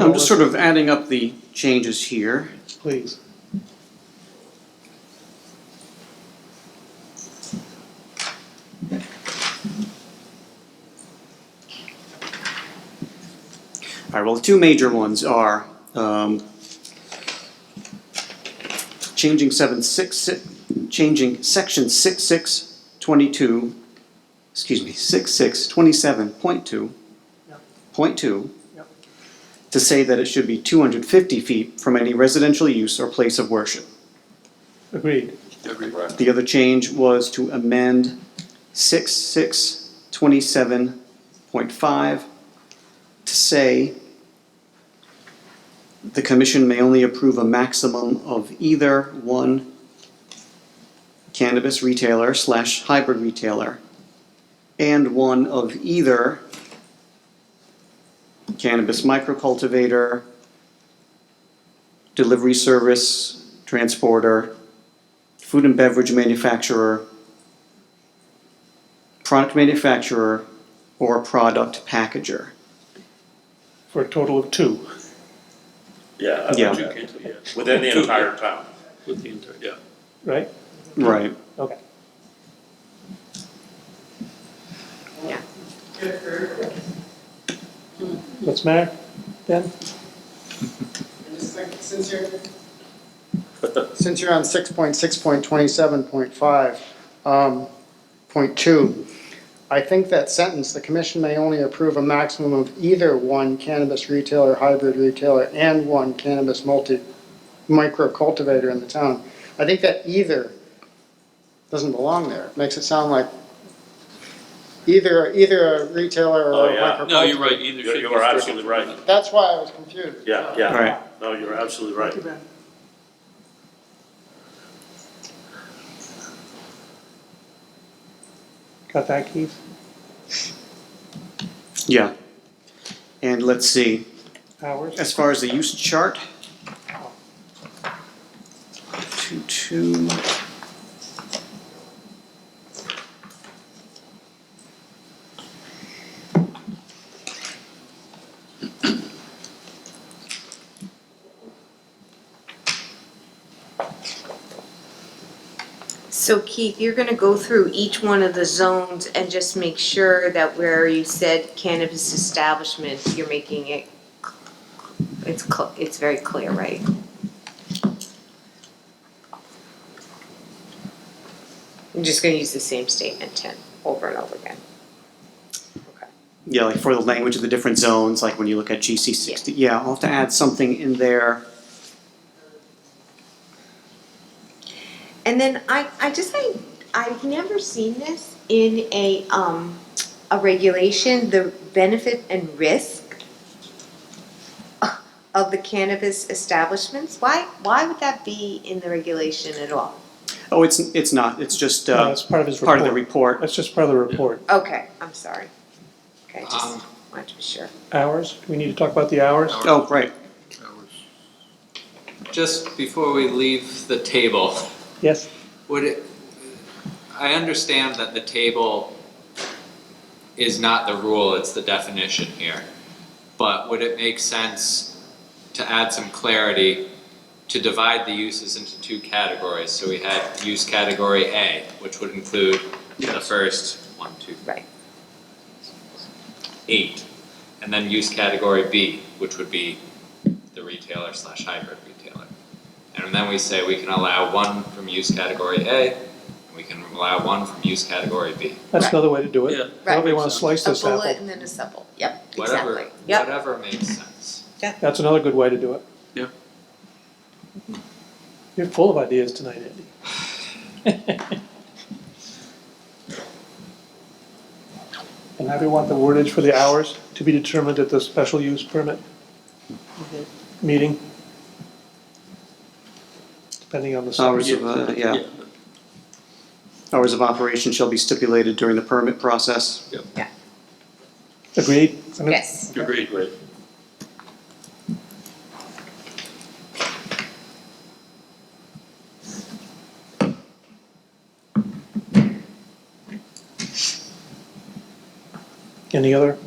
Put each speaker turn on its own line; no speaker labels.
I'm just sort of adding up the changes here.
Please.
All right, well, the two major ones are, um, changing seven six six, changing section six six twenty-two, excuse me, six six twenty-seven point two,
Yep.
point two,
Yep.
to say that it should be two hundred fifty feet from any residential use or place of worship.
Agreed.
Uh, The other change was to amend six six twenty-seven point five to say the commission may only approve a maximum of either one cannabis retailer slash hybrid retailer and one of either cannabis microcultivator, delivery service, transporter, food and beverage manufacturer, product manufacturer, or product packager.
For a total of two.
Yeah. I
Yeah.
would do it, yeah. Within the entire town.
With the inter, yeah.
Right?
Right.
Okay.
Yeah.
What's the matter then?
Just think, Since you're, since you're on six point six point twenty-seven point five, um, point two, I think that sentence, the commission may only approve a maximum of either one cannabis retailer, hybrid retailer, and one cannabis multi, micro cultivator in the town. I think that either doesn't belong there. It Makes it sound like either, either a retailer
Oh,
or a
yeah.
micro.
No, you're right,
cultivator.
either
You
should.
you
be
are
stricken.
absolutely right.
That's why I was confused.
Yeah, yeah.
Right.
No, you're absolutely right.
Got that, Keith?
Yeah. And let's see,
Hours?
as far as the use chart. Two, two.
So Keith, you're gonna go through each one of the zones and just make sure that where you said cannabis establishment, you're making it, it's, cl- it's very clear, right? I'm just gonna use the same statement ten, over and over again.
Yeah, like for the language of the different zones, like when you look at GC sixty, yeah, I'll have to add something in there.
And then I, I just, I, I've never seen this in a, um, a regulation, the benefit and risk of the cannabis establishments, why, why would that be in the regulation at all?
Oh, it's, it's not, it's just,
No,
uh,
it's part of his
part of the
report.
report.
That's just part of the report.
Okay, I'm sorry. Okay, just
Um,
wanted to be sure.
Hours? Do we need to talk about the hours?
Oh, right,
Just before we leave the table,
Yes?
would it, I understand that the table is not the rule, it's the definition here. But would it make sense to add some clarity to divide the uses into two categories? So we had use category A, which would include the first one, two,
Right.
eight, and then use category B, which would be the retailer slash hybrid retailer. And then we say we can allow one from use category A, and we can allow one from use category B.
That's
Right.
another way to do it.
Yeah.
However you want
Right.
to slice
A
this
bullet
apple.
and then a supple, yep,
Whatever,
exactly, yep.
whatever makes sense.
That's another good way to do it.
Yeah.
You're full of ideas tonight, Andy. And how do you want the wordage for the hours to be determined at the special use permit meeting? Depending on the
hours
size.
of, uh, yeah. Hours of operation shall be stipulated during the permit process.
Agreed? I mean,
Yes,
Agreed. Great.
Any other